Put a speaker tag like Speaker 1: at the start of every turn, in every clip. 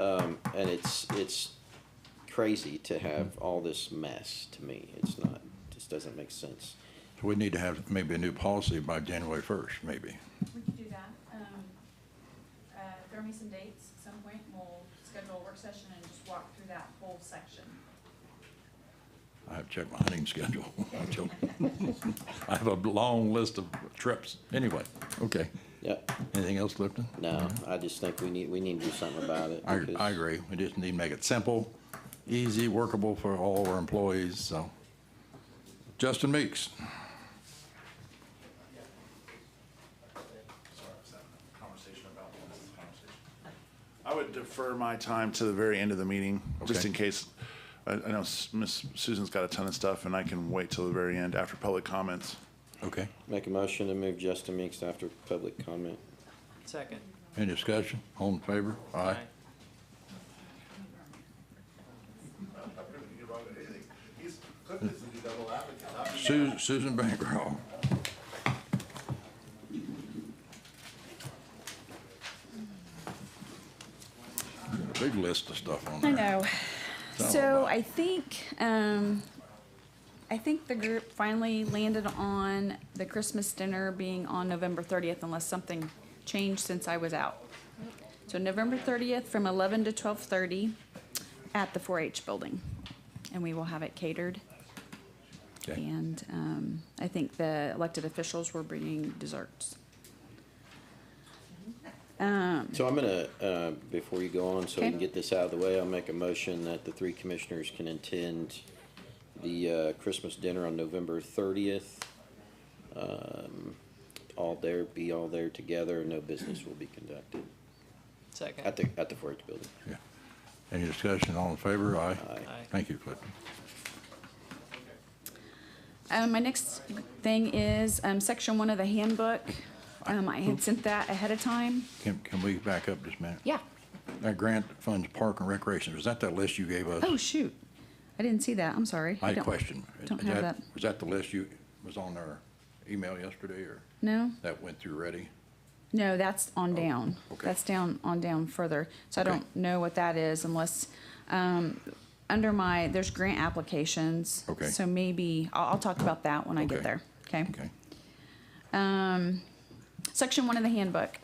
Speaker 1: Um, and it's, it's crazy to have all this mess to me. It's not, just doesn't make sense.
Speaker 2: We need to have maybe a new policy by January first, maybe.
Speaker 3: We could do that. Um, uh, Throw me some dates at some point, we'll schedule a work session and just walk through that whole section.
Speaker 2: I have to check my hunting schedule. I'm joking. I have a long list of trips. Anyway, okay.
Speaker 1: Yep,
Speaker 2: Anything else, Clifton?
Speaker 1: no, I just think we need, we need to do something about it.
Speaker 2: I,
Speaker 1: because-
Speaker 2: I agree. We just need to make it simple, easy, workable for all our employees, so. Justin Meeks.
Speaker 4: conversation about this conversation. I would defer my time to the very end of the meeting, just
Speaker 2: Okay.
Speaker 4: in case. I, I know S- Miss Susan's got a ton of stuff, and I can wait till the very end after public comments.
Speaker 2: Okay.
Speaker 1: Make a motion to move Justin Meeks after public comment.
Speaker 5: Second.
Speaker 2: Any discussion? All in favor? Aye. Su- Susan Bancroft. Big list of stuff on there.
Speaker 3: I know.
Speaker 2: Sound
Speaker 3: So
Speaker 2: like-
Speaker 3: I think, um, I think the group finally landed on the Christmas dinner being on November thirtieth unless something changed since I was out. So November thirtieth from eleven to twelve thirty at the four H building. And we will have it catered.
Speaker 2: Okay.
Speaker 3: And, um, I think the elected officials were bringing desserts.
Speaker 1: So I'm gonna, uh, before you go on, so we can
Speaker 3: Okay.
Speaker 1: get this out of the way, I'll make a motion that the three commissioners can attend the, uh, Christmas dinner on November thirtieth. Um, all there, be all there together, no business will be conducted at
Speaker 5: Second.
Speaker 1: the, at the Fort Worth Building.
Speaker 2: Yeah. Any discussion? All in favor? Aye.
Speaker 5: Aye.
Speaker 2: Thank you, Clifton.
Speaker 3: Um, my next thing is, um, section one of the handbook. Um, I had sent that ahead of time.
Speaker 2: Can, can we back up just a minute?
Speaker 3: Yeah.
Speaker 2: That grant funds park and recreation, was that that list you gave us?
Speaker 3: Oh, shoot. I didn't see that. I'm sorry.
Speaker 2: I had a
Speaker 3: don't-
Speaker 2: question.
Speaker 3: Don't
Speaker 2: Is
Speaker 3: have that.
Speaker 2: Was that the list you, was on our email yesterday, or
Speaker 3: No,
Speaker 2: that went through ready?
Speaker 3: no, that's on down.
Speaker 2: Oh, okay.
Speaker 3: That's down, on down further. So I
Speaker 2: Okay.
Speaker 3: don't know what that is unless, um, under my, there's grant applications.
Speaker 2: Okay.
Speaker 3: So maybe, I'll, I'll talk about that when I get
Speaker 2: Okay.
Speaker 3: there. Okay?
Speaker 2: Okay.
Speaker 3: um, section one of the handbook.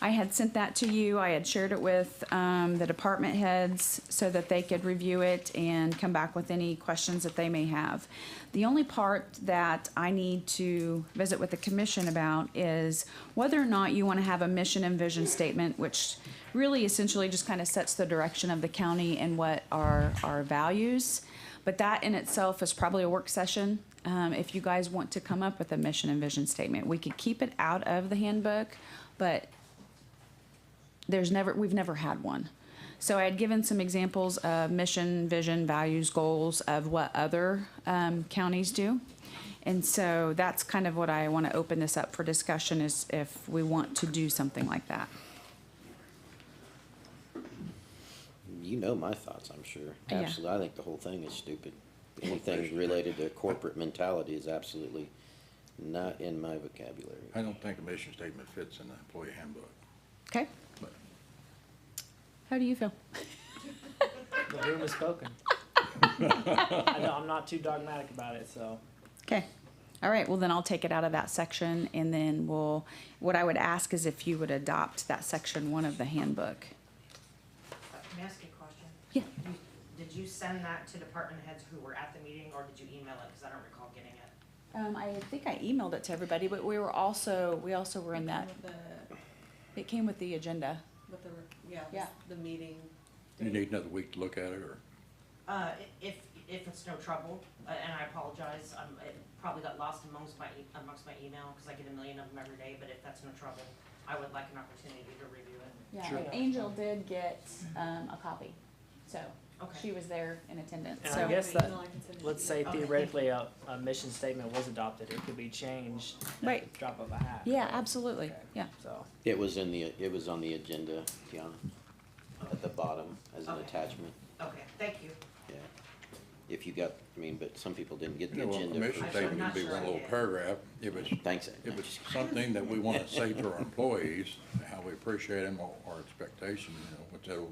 Speaker 3: I had sent that to you. I had shared it with um, the department heads so that they could review it and come back with any questions that they may have. The only part that I need to visit with the commission about is whether or not you want to have a mission and vision statement, which really essentially just kind of sets the direction of the county and what are our values. But that in itself is probably a work session. Um, if you guys want to come up with a mission and vision statement, we could keep it out of the handbook, but there's never, we've never had one. So I had given some examples of mission, vision, values, goals of what other, um, counties do. And so that's kind of what I want to open this up for discussion is if we want to do something like that.
Speaker 1: You know my thoughts, I'm sure.
Speaker 3: Yeah.
Speaker 1: Absolutely, I think the whole thing is stupid. Anything related to corporate mentality is absolutely not in my vocabulary.
Speaker 2: I don't think a mission statement fits in the employee handbook,
Speaker 3: Okay?
Speaker 2: but
Speaker 3: How do you feel?
Speaker 5: The room is spoken. I know, I'm not too dogmatic about it, so.
Speaker 3: Okay. All right, well then I'll take it out of that section and then we'll, what I would ask is if you would adopt that section one of the handbook.
Speaker 6: Uh, May I ask you a question?
Speaker 3: Yeah.
Speaker 6: You- Did you send that to department heads who were at the meeting, or did you email it? Because I don't recall getting it.
Speaker 3: Um, I think I emailed it to everybody, but we were also, we also were in that,
Speaker 7: With the,
Speaker 3: it came with the agenda.
Speaker 7: with the, yeah,
Speaker 3: Yeah.
Speaker 7: the meeting.
Speaker 2: you need another week to look at it, or?
Speaker 6: Uh, i- if, if it's no trouble, uh, and I apologize, um, it probably got lost amongst my, e- amongst my email, because I get a million of them every day, but if that's no trouble, I would like an opportunity to review it.
Speaker 3: Yeah,
Speaker 5: Sure.
Speaker 3: and Angel did get, um, a copy, so she
Speaker 6: Okay,
Speaker 3: was there in attendance,
Speaker 5: And I
Speaker 3: so.
Speaker 5: guess that-
Speaker 7: No, I can send it to
Speaker 5: Let's
Speaker 7: you.
Speaker 5: say
Speaker 6: Okay.
Speaker 5: theoretically, a, a mission statement was adopted, it could be changed at
Speaker 3: Right.
Speaker 5: the drop of a hat.
Speaker 3: Yeah,
Speaker 5: right?
Speaker 3: absolutely,
Speaker 5: Okay.
Speaker 3: yeah.
Speaker 5: So,
Speaker 1: It was in the, it was on the agenda, Tiana, at the bottom as an
Speaker 6: Okay.
Speaker 1: attachment,
Speaker 6: okay, thank you.
Speaker 1: yeah. If you got, I mean, but some people didn't get
Speaker 2: You
Speaker 1: the
Speaker 2: know, a
Speaker 1: agenda.
Speaker 2: mission
Speaker 1: for-
Speaker 6: I should
Speaker 2: statement would
Speaker 6: not
Speaker 2: be one
Speaker 6: sure.
Speaker 2: little paragraph, if it's,
Speaker 1: Thanks.
Speaker 2: if it's something that we want to say to our employees, how we appreciate them, or our expectation, you know, whatever